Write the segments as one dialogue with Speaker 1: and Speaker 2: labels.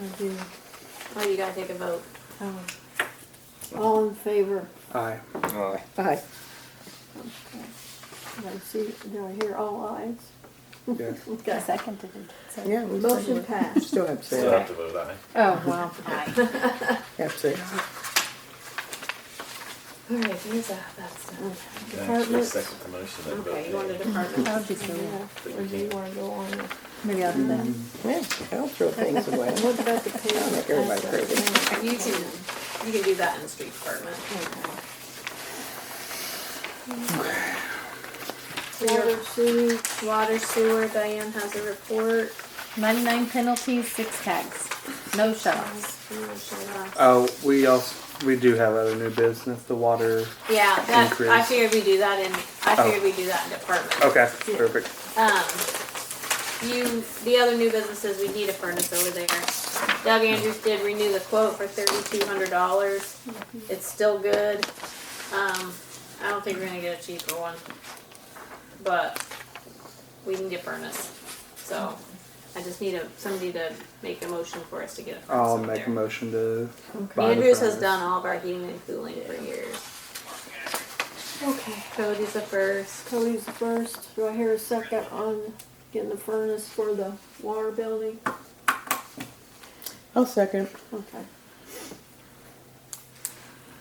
Speaker 1: I do.
Speaker 2: Well, you gotta take a vote.
Speaker 1: Oh. All in favor?
Speaker 3: Aye.
Speaker 4: Aye.
Speaker 5: Aye.
Speaker 1: Okay. Did I see, did I hear all ayes?
Speaker 3: Yes.
Speaker 1: Okay.
Speaker 6: seconded it. so-
Speaker 5: Yeah. we still
Speaker 1: Motion
Speaker 5: have-
Speaker 1: passed.
Speaker 5: Still have
Speaker 4: Still
Speaker 5: six.
Speaker 4: have to vote eh? aye.
Speaker 5: Oh, wow.
Speaker 6: Aye.
Speaker 5: Have six.
Speaker 2: Alright, here's that, that's done.
Speaker 4: Can I actually
Speaker 1: Departments.
Speaker 4: second the motion and
Speaker 2: Okay, you want the
Speaker 4: vote
Speaker 2: department?
Speaker 6: I'll just go
Speaker 1: Yeah,
Speaker 6: with-
Speaker 1: Or do you wanna go on? with-
Speaker 6: Maybe I'll do that.
Speaker 5: Mm, Yeah, I'll throw things away.
Speaker 1: What about the pay?
Speaker 5: I'll Mm-hmm. make everybody crazy.
Speaker 2: You can, you can do that in the street department. So your
Speaker 1: Water, sewer,
Speaker 2: water sewer, Diane has a report.
Speaker 6: Ninety-nine penalties, six tags, no shut-offs.
Speaker 3: Oh, we also, we do have other new business, the water.
Speaker 2: Yeah, that, I
Speaker 3: Increase.
Speaker 2: figured we do that in, I
Speaker 3: Oh.
Speaker 2: figured we do that in department.
Speaker 3: Okay, perfect.
Speaker 2: Um, you, the other new businesses, we need a furnace over there. Doug Andrews did renew the quote for thirty-two hundred dollars. It's still good. Um, I don't think we're gonna get a cheaper one. But we need a furnace, so I just need a, somebody to make a motion for us to get a furnace
Speaker 3: I'll
Speaker 2: over
Speaker 3: make a
Speaker 2: there.
Speaker 3: motion to. buy the
Speaker 2: Andrews has
Speaker 3: furnace.
Speaker 2: done all of our heating and cooling for years.
Speaker 1: okay.
Speaker 2: Cody's the first.
Speaker 1: Cody's the first, do I hear a second on getting the furnace for the water building?
Speaker 5: I'll second.
Speaker 1: Okay.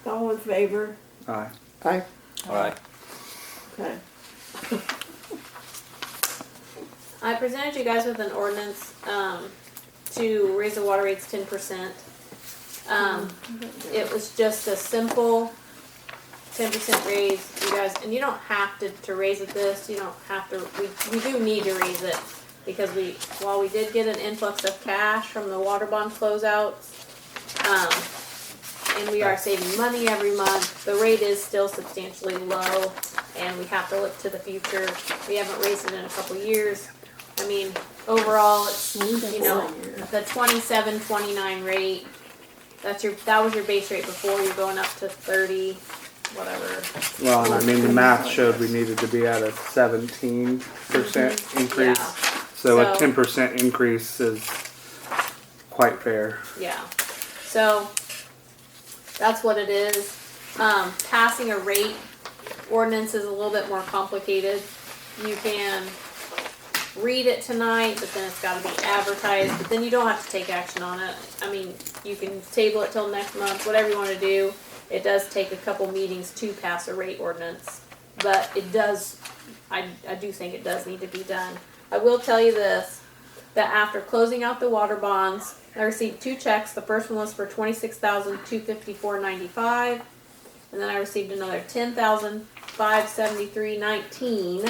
Speaker 1: All in favor?
Speaker 3: Aye.
Speaker 5: Aye.
Speaker 4: aye.
Speaker 1: Okay.
Speaker 2: I presented you guys with an ordinance um, to raise the water rates ten percent. Um, it was just a simple ten percent raise, you guys, and you don't have to, to raise it this. You don't have to. We we do need to raise it because we while we did get an influx of cash from the water bond closeouts, um, and we are saving money every month. The rate is still substantially low, and we have to look to the future. We haven't raised it in a couple years. I mean, overall, it's you know, the twenty-seven, twenty-nine rate. That's your, that was your base rate before, you're going up to thirty, whatever.
Speaker 3: Well, and I mean, the math showed we needed to be at a seventeen percent
Speaker 2: Mhm. Yeah.
Speaker 3: increase. So a
Speaker 2: So-
Speaker 3: ten percent increase is quite fair.
Speaker 2: Yeah. So that's what it is. Um, passing a rate ordinance is a little bit more complicated. You can read it tonight, but then it's gotta be advertised, but then you don't have to take action on it. I mean, you can table it till next month, whatever you wanna do. It does take a couple meetings to pass a rate ordinance, but it does, I, I do think it does need to be done. I will tell you this, that after closing out the water bonds, I received two checks. The first one was for twenty-six thousand two fifty-four ninety-five, and then I received another ten thousand five seventy-three nineteen.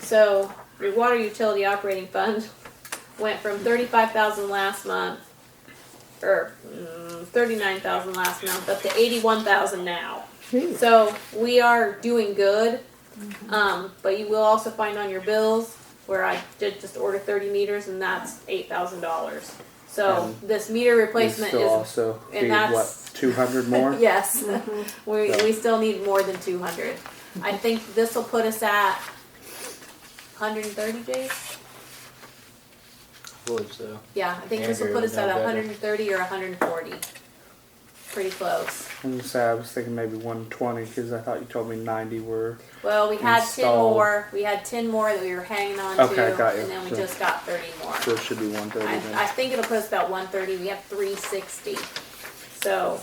Speaker 2: So your water utility operating fund went from thirty-five thousand last month, or mm, thirty-nine thousand last month, up to eighty-one thousand now.
Speaker 5: Gee.
Speaker 2: So we are doing good. Um, but you will also find on your bills where I did just order thirty meters and that's eight thousand dollars. So
Speaker 3: Um,
Speaker 2: this meter
Speaker 3: We
Speaker 2: replacement
Speaker 3: still
Speaker 2: is,
Speaker 3: also
Speaker 2: and
Speaker 3: need what,
Speaker 2: that's-
Speaker 3: two hundred more?
Speaker 2: yes,
Speaker 1: Mm-hmm.
Speaker 2: we,
Speaker 3: So-
Speaker 2: we still need more than two hundred. I think this will put us at hundred and thirty days?
Speaker 7: believe so.
Speaker 2: Yeah, I think this will
Speaker 7: Andrew
Speaker 2: put
Speaker 7: would
Speaker 2: us at
Speaker 7: know better.
Speaker 2: hundred and thirty or hundred and forty. Pretty close.
Speaker 3: I'm gonna say I was thinking maybe one twenty, cause I thought you told me ninety were,
Speaker 2: Well, we had ten
Speaker 3: Install.
Speaker 2: more, we had ten more that we were hanging on
Speaker 3: Okay,
Speaker 2: to,
Speaker 3: got you.
Speaker 2: and then we
Speaker 3: So-
Speaker 2: just got thirty more.
Speaker 3: so it should be one thirty
Speaker 2: I, I
Speaker 3: then.
Speaker 2: think it'll post about one thirty, we have three sixty, so,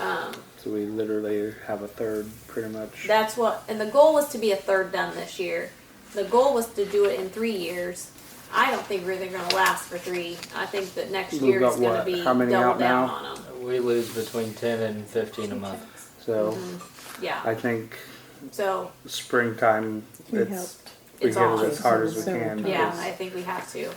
Speaker 2: um,
Speaker 3: So we literally have a third pretty much.
Speaker 2: that's what, and the goal was to be a third done this year. The goal was to do it in three years, I don't think we're really gonna last for three, I think that next
Speaker 3: We've
Speaker 2: year is
Speaker 3: got
Speaker 2: gonna
Speaker 3: what?
Speaker 2: be
Speaker 3: How many
Speaker 2: double
Speaker 3: out
Speaker 2: down
Speaker 3: now?
Speaker 2: on them,
Speaker 7: We lose between 10 and 15 a month.
Speaker 3: So
Speaker 2: yeah,
Speaker 3: I think
Speaker 2: so,
Speaker 3: springtime,
Speaker 5: We
Speaker 3: it's,
Speaker 5: helped.
Speaker 3: we
Speaker 2: It's
Speaker 3: hit it
Speaker 2: on.
Speaker 3: as hard as we
Speaker 5: Several
Speaker 3: can.
Speaker 5: times.
Speaker 2: yeah,
Speaker 3: because-
Speaker 2: I think we have to.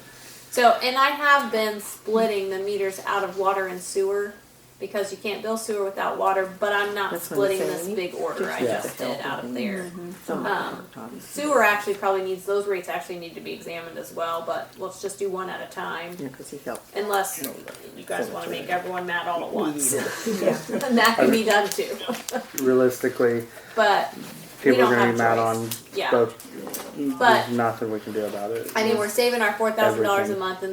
Speaker 2: So, and I have been splitting the meters out of water and sewer, because you can't bill sewer without water, but I'm not
Speaker 5: That's what I'm
Speaker 2: splitting this
Speaker 5: saying. Mm-hmm.
Speaker 2: big order I
Speaker 5: Just
Speaker 2: just
Speaker 5: the
Speaker 2: did
Speaker 5: help
Speaker 2: out
Speaker 5: of
Speaker 2: of
Speaker 5: it.
Speaker 2: there.
Speaker 6: Mm-hmm.
Speaker 5: Some
Speaker 2: Um,
Speaker 5: obviously.
Speaker 2: Sewer actually probably needs, those rates actually need to be examined as well, but let's just do one at a time.
Speaker 5: Yeah, because he helped.
Speaker 2: Unless you guys
Speaker 5: so
Speaker 2: wanna
Speaker 5: much
Speaker 2: make everyone mad all at once,
Speaker 5: Yeah.
Speaker 2: and that can be done too,
Speaker 3: Realistically,
Speaker 2: but We
Speaker 3: people
Speaker 2: don't
Speaker 3: are gonna
Speaker 2: have
Speaker 3: be mad on
Speaker 2: choice. Yeah.
Speaker 3: both.
Speaker 2: But-
Speaker 3: There's nothing we can do about it.
Speaker 2: I mean, we're saving our four thousand dollars a
Speaker 3: Everything.
Speaker 2: month and